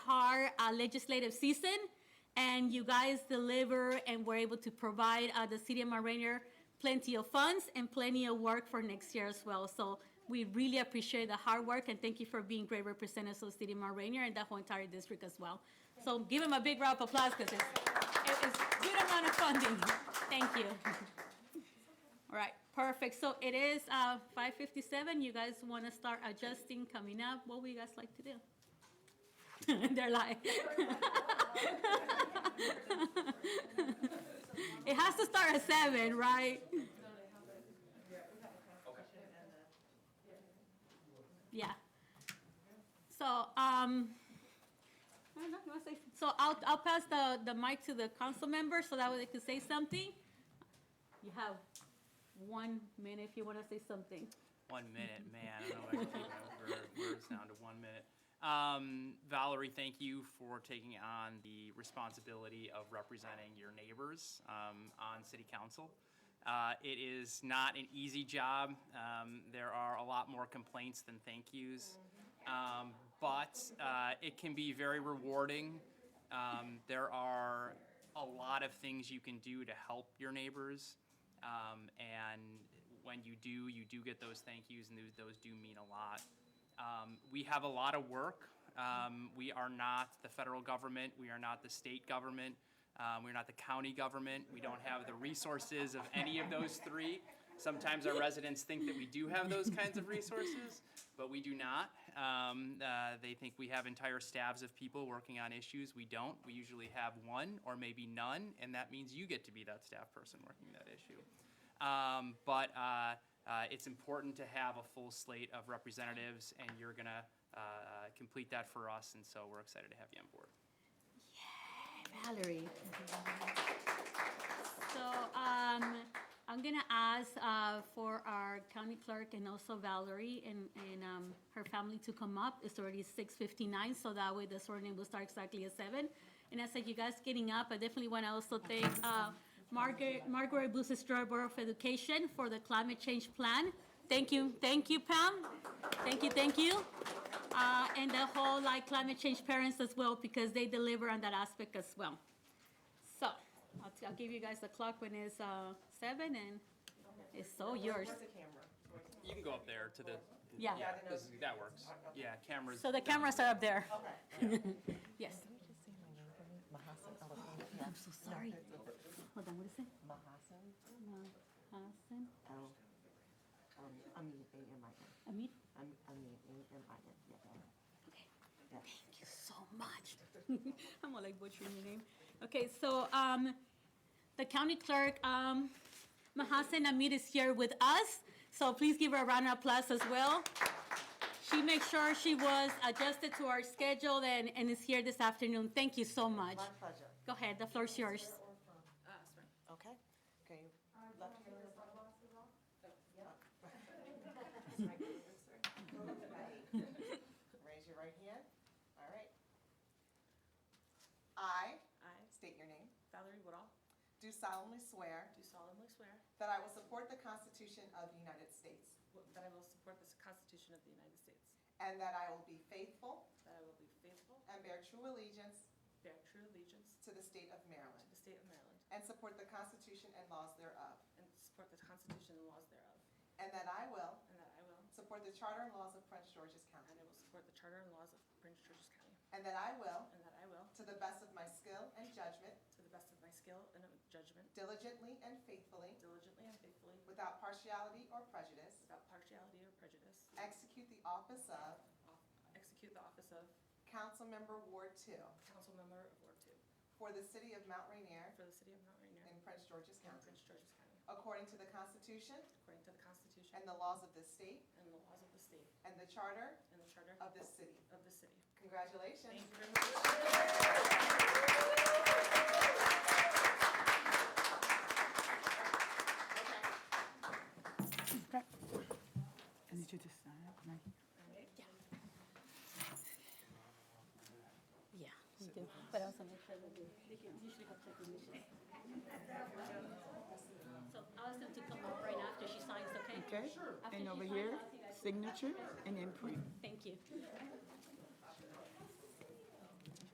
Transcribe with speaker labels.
Speaker 1: uh, legislative season, and you guys deliver and were able to provide uh, the city of Mount Rainier plenty of funds and plenty of work for next year as well. So we really appreciate the hard work, and thank you for being great representatives of the city of Mount Rainier and the whole entire district as well. So give them a big round of applause because it's, it's a good amount of funding. Thank you. All right, perfect. So it is uh, 5:57. You guys want to start adjusting, coming up? What would you guys like to do? They're like, it has to start at seven, right? Yeah. So, um, I don't know, you wanna say- so I'll, I'll pass the, the mic to the council member so that way they can say something. You have one minute if you want to say something.
Speaker 2: One minute, man. I don't know if I can keep my wor- words down to one minute. Um, Valerie, thank you for taking on the responsibility of representing your neighbors um, on city council. Uh, it is not an easy job. Um, there are a lot more complaints than thank yous, um, but uh, it can be very rewarding. Um, there are a lot of things you can do to help your neighbors. Um, and when you do, you do get those thank yous, and those, those do mean a lot. Um, we have a lot of work. Um, we are not the federal government, we are not the state government, um, we're not the county government, we don't have the resources of any of those three. Sometimes our residents think that we do have those kinds of resources, but we do not. Um, uh, they think we have entire staffs of people working on issues. We don't. We usually have one or maybe none, and that means you get to be that staff person working that issue. Um, but uh, uh, it's important to have a full slate of representatives, and you're going to uh, uh, complete that for us, and so we're excited to have you on board.
Speaker 1: Valerie. So um, I'm gonna ask uh, for our county clerk and also Valerie and, and um, her family to come up. It's already six fifty-nine, so that way the swearing will start exactly at seven. And as I said, you guys getting up, I definitely want to also thank uh, Margaret, Margaret Busister Borough of Education for the climate change plan. Thank you, thank you, Pam. Thank you, thank you uh, and the whole like climate change parents as well because they deliver on that aspect as well. So I'll, t- I'll give you guys the clock when it's uh, seven and it's so yours.
Speaker 3: Where's the camera?
Speaker 2: You can go up there to the.
Speaker 1: Yeah.
Speaker 2: yeah this- that works. Yeah, cameras.
Speaker 1: So the cameras are up there.
Speaker 3: Okay.
Speaker 1: Yes.
Speaker 3: Mahasan
Speaker 1: I'm so sorry. Hold on. What is it? Uh,
Speaker 3: Mahasan?
Speaker 1: Mahasan
Speaker 3: Oh. Um, Amin, A-M-I-N.
Speaker 1: Amir.
Speaker 3: Am- Amin, A-M-I-N, yeah.
Speaker 1: Okay.
Speaker 3: Yeah.
Speaker 1: Thank you so much. I'm all like butchering your name. Okay, so um, the county clerk, um, Mahasen Amit is here with us, so please give her a round of applause as well. She made sure she was adjusted to our schedule and, and is here this afternoon. Thank you so much.
Speaker 3: My pleasure.
Speaker 1: Go ahead, the floor is yours.
Speaker 4: Uh,
Speaker 3: Okay. Okay. Left hand. Yeah. Raise your right hand. All right. I,
Speaker 4: I,
Speaker 3: state your name,
Speaker 4: Valerie Woodall,
Speaker 3: do solemnly swear
Speaker 4: do solemnly swear
Speaker 3: that I will support the Constitution of the United States
Speaker 4: w- that I will support the Constitution of the United States,
Speaker 3: and that I will be faithful
Speaker 4: that I will be faithful,
Speaker 3: and bear true allegiance
Speaker 4: bear true allegiance
Speaker 3: to the state of Maryland
Speaker 4: to the state of Maryland,
Speaker 3: and support the Constitution and laws thereof,
Speaker 4: and support the Constitution and laws thereof,
Speaker 3: and that I will
Speaker 4: and that I will,
Speaker 3: support the charter and laws of Prince George's
Speaker 4: and
Speaker 3: County,
Speaker 4: I will support the Charter and laws of Prince George's County,
Speaker 3: and that I will,
Speaker 4: and that I will,
Speaker 3: to the best of my skill and judgment,
Speaker 4: to the best of my skill and of judgment,
Speaker 3: diligently and faithfully,
Speaker 4: diligently and faithfully,
Speaker 3: without partiality or prejudice,
Speaker 4: without partiality or prejudice,
Speaker 3: execute the office of
Speaker 4: off- execute the office of
Speaker 3: Councilmember Ward Two
Speaker 4: Council Member of Ward Two
Speaker 3: for the city of Mount Rainier
Speaker 4: for the City of Mount Rainier
Speaker 3: in Prince George's
Speaker 4: and
Speaker 3: County,
Speaker 4: Prince George's County,
Speaker 3: according to the Constitution
Speaker 4: according to the Constitution
Speaker 3: and the laws of this state
Speaker 4: and the laws of the state
Speaker 3: and the charter
Speaker 4: and the Charter
Speaker 3: of this city.
Speaker 4: of the city.
Speaker 3: Congratulations.
Speaker 4: Thank you very much.
Speaker 1: Yeah, we do. But I also make sure that they can usually have recognition. So I'll ask them to come up right after she signs, okay?
Speaker 5: Okay,
Speaker 1: After
Speaker 5: and
Speaker 1: she
Speaker 5: over
Speaker 1: signs,
Speaker 5: here,
Speaker 1: I'll ask you guys to-
Speaker 5: signature and imprint.
Speaker 1: Thank you.